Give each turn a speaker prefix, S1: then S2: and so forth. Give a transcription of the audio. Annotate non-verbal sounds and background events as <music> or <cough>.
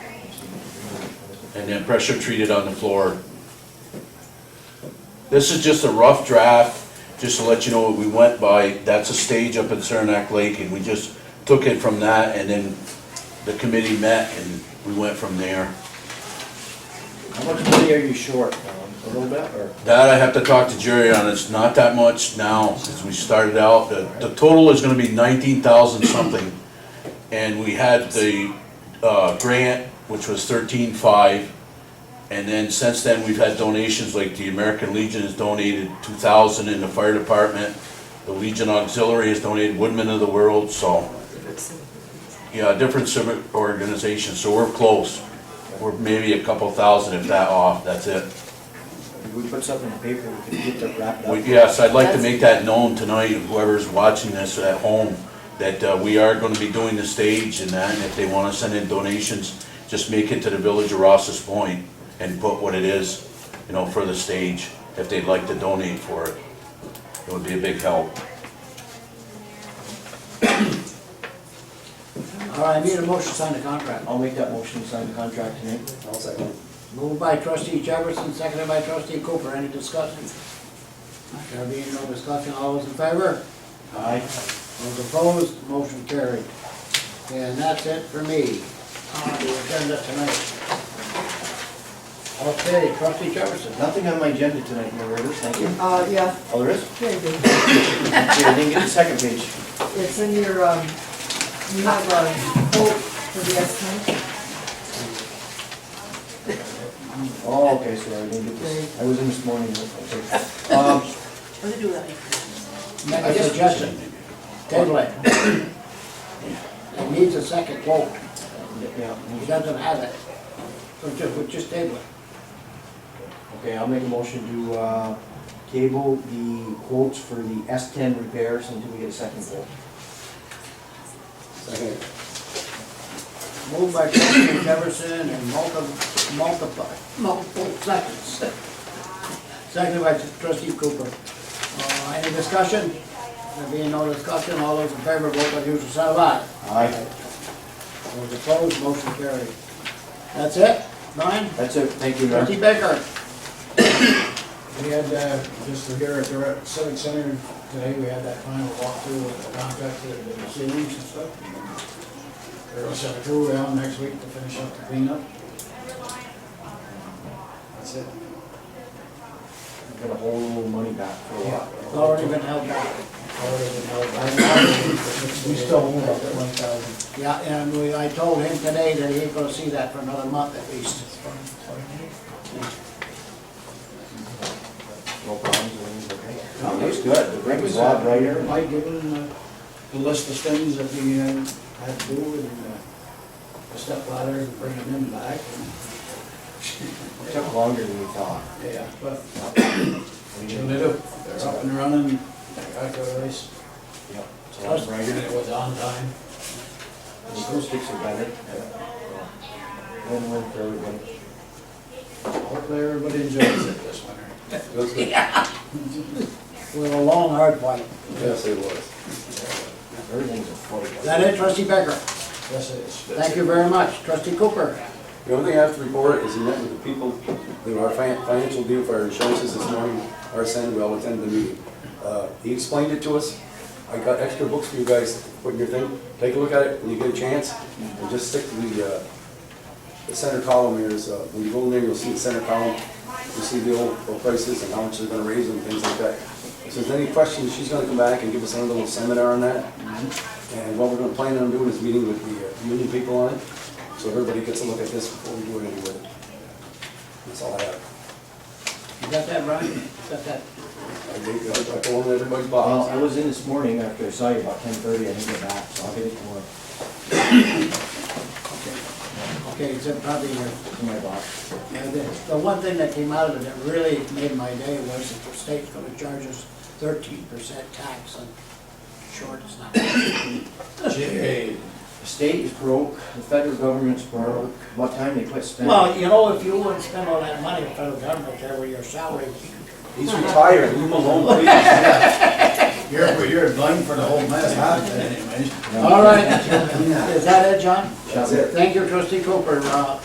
S1: and then pressure treated on the floor. This is just a rough draft, just to let you know what we went by. That's a stage up in Saranac Lake, and we just took it from that, and then the committee met, and we went from there.
S2: How much money are you short, Tom? A little bit, or?
S1: That I have to talk to Jerry on, it's not that much now, since we started out, the, the total is gonna be nineteen thousand something. And we had the, uh, grant, which was thirteen-five, and then since then, we've had donations, like the American Legion has donated two thousand in the fire department. The Legion Auxiliary has donated Woodmen of the World, so, yeah, different civic organizations, so we're close. We're maybe a couple thousand if that off, that's it.
S2: If we put something in the paper, we could get that wrapped
S1: Well,
S2: up.
S1: Yes, I'd like to make that known tonight, whoever's watching this at home, that uh, we are gonna be doing the stage and that, and if they wanna send in donations, just make it to the Village of Ross's Point and put what it is, you know, for the stage, if they'd like to donate for it. It would be a big help.
S3: All right, I need a motion to sign the contract.
S2: I'll make that motion to sign the contract tonight.
S4: I'll second.
S3: Moved by trustee Jefferson, seconded by trustee Cooper. Any discussion? There being no discussion, all those in favor?
S2: Aye.
S3: Those opposed, motion carried. And that's it for me on the agenda tonight. Okay, trustee Jefferson.
S2: Nothing on my agenda tonight, Mayor Rivers, thank you.
S4: Uh, yeah,
S2: Oh, there is?
S4: there you go.
S2: Yeah, I didn't get the second page.
S4: It's in your, um, you have a quote for the estimate.
S2: Oh, okay, sorry, I didn't get this. I was in this morning, okay. Um,
S5: Let me do that.
S3: Make a suggestion. Table it. It needs a second vote.
S2: yeah,
S3: He doesn't have it. So just, we just table it.
S2: Okay, I'll make a motion to, uh, table the quotes for the S ten repairs until we get a second quote.
S4: Second.
S3: Moved by trustee Jefferson and multi- multiply, multiple seconds. Seconded by trustee Cooper. Uh, Any discussion? There being no discussion, all those in favor, vote by the usual sign of aye.
S2: Aye.
S3: Those opposed, motion carried. That's it? Nine?
S2: That's it, thank you, Mayor.
S3: Trustee Baker?
S6: We had, uh, just here at the Civic Center today, we had that final walkthrough with the contractor that did the ceilings and stuff. We're gonna set a crew down next week to finish up the cleanup. That's it.
S2: Got a whole little money back for a lot.
S3: It's Already been held back.
S6: We still own about one thousand.
S3: Yeah, and we, I told him today that he ain't gonna see that for another month at least.
S2: No problems, everything's okay. No, It's good, the ring is loud right here.
S6: Mike given uh, the list of things that we uh, had to do and uh, the step ladder and bringing them back.
S2: It took longer than we thought.
S6: and- Yeah, but
S2: We
S6: What you
S2: didn't-
S6: gonna do? They're up and running, they're back to the race,
S2: Yep, it's a lot
S6: and
S2: brighter.
S6: it was on time.
S2: The acoustics are better. Win-win for everybody.
S6: Hopefully everybody enjoys it this winter.
S3: It was a long, hard fight.
S7: Yes, it was.
S2: Everything's a
S3: Is
S2: forty.
S3: that it, trustee Becker?
S6: Yes, it is.
S3: Thank you very much. Trustee Cooper?
S7: The only thing I have to report is we met with the people, you know, our fin- financial deal for our insurances this morning, our son will attend the meeting. Uh, He explained it to us. I got extra books for you guys, put in your thing, take a look at it when you get a chance, and just stick to the, uh, the center column here is, uh, when you go in there, you'll see the center column, you'll see the old oil prices and how much they're gonna raise and things like that. If there's any questions, she's gonna come back and give us another little seminar on that. And what we're gonna plan on doing is meeting with the uh, union people on it, so everybody gets a look at this before we do it anyway. That's all I have.
S3: You got that, Brian? You got that?
S7: I think, uh, I told everybody's
S2: Well,
S7: box.
S2: I was in this morning after I saw you about ten thirty, I didn't get back, so I'll get it tomorrow
S3: Okay, it's probably your,
S2: to my boss.
S3: the the one thing that came out of it that really made my day was that the state's gonna charge us thirteen percent tax on short is not.
S2: Jay. The state is broke, the federal government's broke, what time they quit spending?
S3: Well, you know, if you wouldn't spend all that money in federal government there with your salary,
S7: He's retired, leave him alone, please.
S6: You're, you're blamed for the whole mess, huh, anyways?
S3: All right. <laughs> Is that it, John?
S7: That's it.
S3: Thank you, trustee Cooper. Uh,